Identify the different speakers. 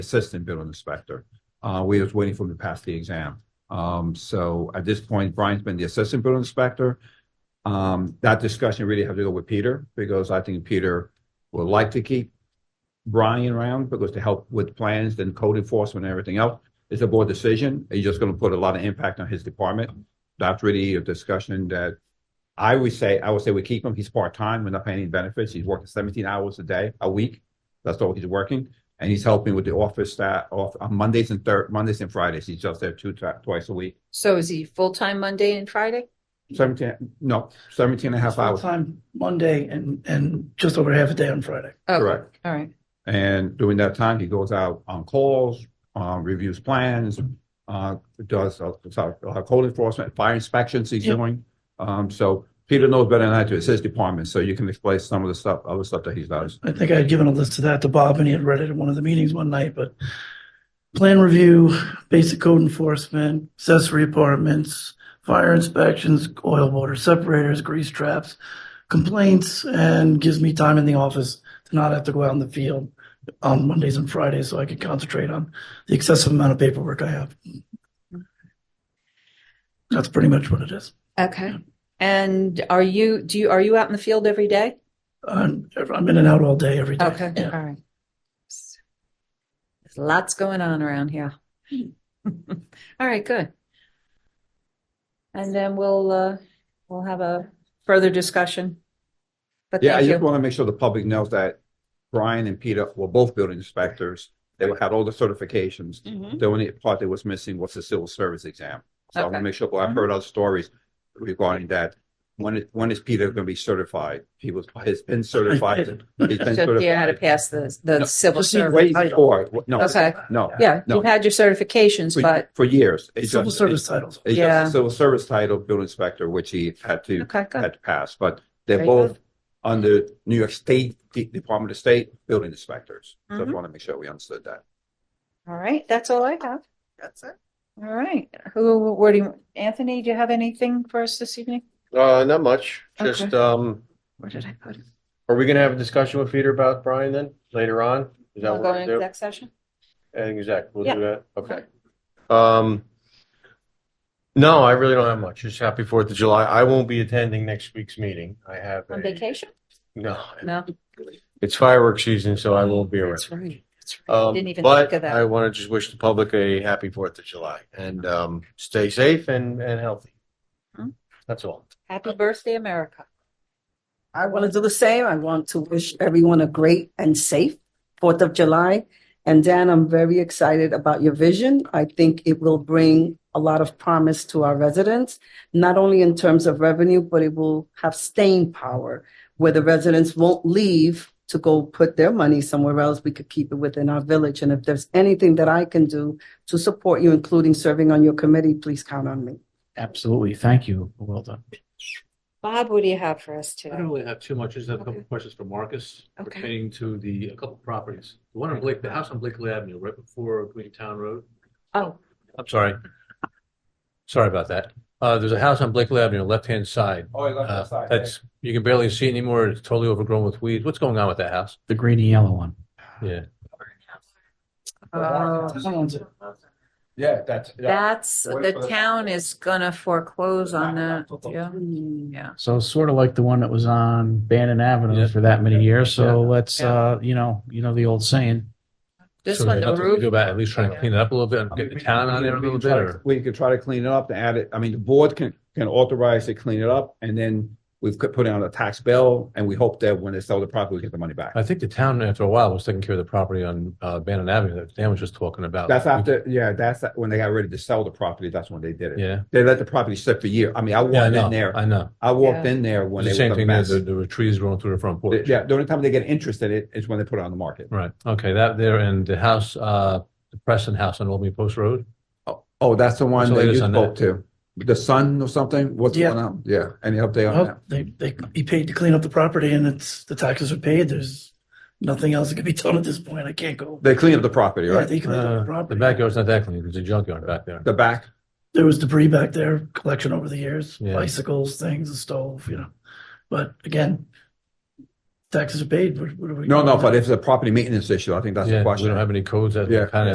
Speaker 1: assistant building inspector. Uh, we was waiting for him to pass the exam. Um, so at this point, Brian's been the assistant building inspector. Um, that discussion really had to go with Peter because I think Peter would like to keep Brian around because to help with plans and code enforcement and everything else. It's a board decision. He's just gonna put a lot of impact on his department. That's really a discussion that I would say, I would say we keep him. He's part-time. We're not paying any benefits. He's working seventeen hours a day, a week. That's all he's working and he's helping with the office staff off on Mondays and thir- Mondays and Fridays. He's just there two ti- twice a week.
Speaker 2: So is he full-time Monday and Friday?
Speaker 1: Seventeen, no, seventeen and a half hours.
Speaker 3: Time Monday and, and just over half a day on Friday.
Speaker 2: Oh,
Speaker 1: Correct.
Speaker 2: All right.
Speaker 1: And during that time, he goes out on calls, um, reviews plans, uh, does a, so- uh, code enforcement, fire inspections he's
Speaker 3: Yeah.
Speaker 1: doing. Um, so Peter knows better than I do. It's his department, so you can explain some of the stuff, other stuff that he does.
Speaker 3: I think I had given a list of that to Bob and he had read it in one of the meetings one night, but plan review, basic code enforcement, accessory apartments, fire inspections, oil water separators, grease traps, complaints, and gives me time in the office to not have to go out in the field on Mondays and Fridays so I could concentrate on the excessive amount of paperwork I have. That's pretty much what it is.
Speaker 2: Okay. And are you, do you, are you out in the field every day?
Speaker 3: I'm, I'm in and out all day, every day.
Speaker 2: Okay, all
Speaker 3: Yeah.
Speaker 2: right. There's lots going on around here. All right, good. And then we'll, uh, we'll have a further discussion. But
Speaker 1: Yeah, I
Speaker 2: thank
Speaker 1: just
Speaker 2: you.
Speaker 1: want to make sure the public knows that Brian and Peter were both building inspectors. They had all the certifications. Mm-hmm. The only part that was missing was the civil service exam. So I want to
Speaker 2: Okay. Mm-hmm.
Speaker 1: make sure, well, I've heard other stories regarding that. When is, when is Peter going to be certified? He was, has been certified. He's been
Speaker 2: So you had to
Speaker 1: certified.
Speaker 2: pass the, the
Speaker 1: No,
Speaker 2: civil
Speaker 3: just need
Speaker 2: service.
Speaker 1: Way before, no,
Speaker 2: Okay.
Speaker 1: no.
Speaker 2: Yeah, you had your certifications,
Speaker 1: For,
Speaker 2: but,
Speaker 1: for years. It's
Speaker 3: Civil
Speaker 1: just-
Speaker 3: service titles.
Speaker 1: It's
Speaker 2: Yeah.
Speaker 1: just a civil service title, building inspector, which he had to,
Speaker 2: okay, good.
Speaker 1: had to pass, but they're
Speaker 2: Very
Speaker 1: both under New York State, De- Department of State, building inspectors. So I
Speaker 2: Mhm.
Speaker 1: want to make sure we understood that.
Speaker 2: All right, that's all I have.
Speaker 4: That's it.
Speaker 2: All right. Who, where do you, Anthony, do you have anything for us this evening?
Speaker 4: Uh, not much. Just,
Speaker 2: Okay.
Speaker 4: um,
Speaker 2: Where did I put it?
Speaker 4: are we gonna have a discussion with Peter about Brian then, later on? Is that
Speaker 2: I'll
Speaker 4: what
Speaker 2: go
Speaker 4: we're
Speaker 2: into
Speaker 4: gonna do?
Speaker 2: that session?
Speaker 4: Exact, we'll
Speaker 2: Yeah.
Speaker 4: do that, okay. Um, no, I really don't have much. Just happy Fourth of July. I won't be attending next week's meeting. I have
Speaker 2: On
Speaker 4: a-
Speaker 2: vacation?
Speaker 4: No,
Speaker 2: No.
Speaker 4: it's fireworks season, so I won't be around.
Speaker 2: That's right. That's right.
Speaker 4: Um,
Speaker 2: Didn't even think of
Speaker 4: but I
Speaker 2: that.
Speaker 4: wanna just wish the public a happy Fourth of July and, um, stay safe and, and healthy.
Speaker 2: Hmm.
Speaker 4: That's all.
Speaker 2: Happy birthday, America.
Speaker 5: I want to do the same. I want to wish everyone a great and safe Fourth of July. And Dan, I'm very excited about your vision. I think it will bring a lot of promise to our residents, not only in terms of revenue, but it will have staying power where the residents won't leave to go put their money somewhere else. We could keep it within our village. And if there's anything that I can do to support you, including serving on your committee, please count on me.
Speaker 6: Absolutely. Thank you. Well done.
Speaker 2: Bob, what do you have for us
Speaker 6: I don't
Speaker 2: today?
Speaker 6: really have too much. I just have a couple
Speaker 2: Okay.
Speaker 6: of questions for Marcus
Speaker 2: Okay.
Speaker 6: pertaining to the, a couple of properties. The one on Blake, the house on Blakely Avenue, right before Green Town Road.
Speaker 2: Oh,
Speaker 6: I'm sorry. Sorry about that. Uh, there's a house on Blakely Avenue, left-hand side.
Speaker 1: Oh, you
Speaker 6: Uh, That's, you can barely see it anymore. It's totally overgrown with weeds. What's going on with that house?
Speaker 7: The green and yellow one.
Speaker 6: Yeah.
Speaker 2: oh,
Speaker 1: Yeah, that's.
Speaker 2: that's,
Speaker 1: What
Speaker 2: the
Speaker 1: for the-
Speaker 2: town is gonna foreclose on that. Yeah. Yeah.
Speaker 7: So it's sort of like the one that was on Bannon
Speaker 6: Yeah.
Speaker 7: Avenue for that many years. So
Speaker 6: Yeah.
Speaker 7: let's,
Speaker 2: Yeah.
Speaker 7: uh, you know, you know the old saying.
Speaker 2: This
Speaker 6: So
Speaker 2: one,
Speaker 6: there's
Speaker 2: the
Speaker 6: nothing we can Do
Speaker 2: roof.
Speaker 6: about it. at least trying to clean it up a little bit and get the town on there a little bit or?
Speaker 1: We could try to clean it up and add it, I mean, the board can, can authorize to clean it up and then we've could put out a tax bill and we hope that when they sell the property, we get the money back.
Speaker 6: I think the town after a while was taking care of the property on, uh, Bannon Avenue that Dan was just talking about.
Speaker 1: That's after, yeah, that's when they got ready to sell the property, that's when they did it.
Speaker 6: Yeah.
Speaker 1: They let the property sit for years. I mean, I
Speaker 6: Yeah, I
Speaker 1: walked
Speaker 6: know.
Speaker 1: in there,
Speaker 6: I know.
Speaker 1: I walked
Speaker 2: Yeah.
Speaker 1: in there when
Speaker 6: It's
Speaker 1: they
Speaker 6: the same
Speaker 1: were a
Speaker 6: thing there,
Speaker 1: mess.
Speaker 6: the, the trees growing through the front porch.
Speaker 1: Yeah, the only time they get interest in it is when they put it on the market.
Speaker 6: Right, okay, that there and the house, uh, the Preston House on Old Main Post Road.
Speaker 1: Oh, oh, that's the one
Speaker 6: So
Speaker 1: that
Speaker 6: it
Speaker 1: you
Speaker 6: is on
Speaker 1: spoke to, the son or something, what's
Speaker 3: Yeah.
Speaker 1: going on? Yeah, any update on
Speaker 3: Well,
Speaker 1: that?
Speaker 3: they, they, he paid to clean up the property and it's, the taxes are paid. There's nothing else that can be done at this point. I can't go.
Speaker 1: They cleaned up the property,
Speaker 3: Yeah,
Speaker 1: right?
Speaker 3: they cleaned up
Speaker 6: Uh,
Speaker 3: the
Speaker 6: The
Speaker 3: property.
Speaker 6: backyard's not that clean, there's a junkyard back there.
Speaker 1: The back,
Speaker 3: There was debris back there, collection over the years,
Speaker 6: Yeah.
Speaker 3: bicycles, things, a stove, you know. But again,
Speaker 8: taxes are paid, what what are we?
Speaker 3: No, no, but if it's a property maintenance issue, I think that's
Speaker 1: Yeah,
Speaker 3: the
Speaker 1: we
Speaker 3: question.
Speaker 1: don't have any codes that
Speaker 3: Yeah.
Speaker 1: kind of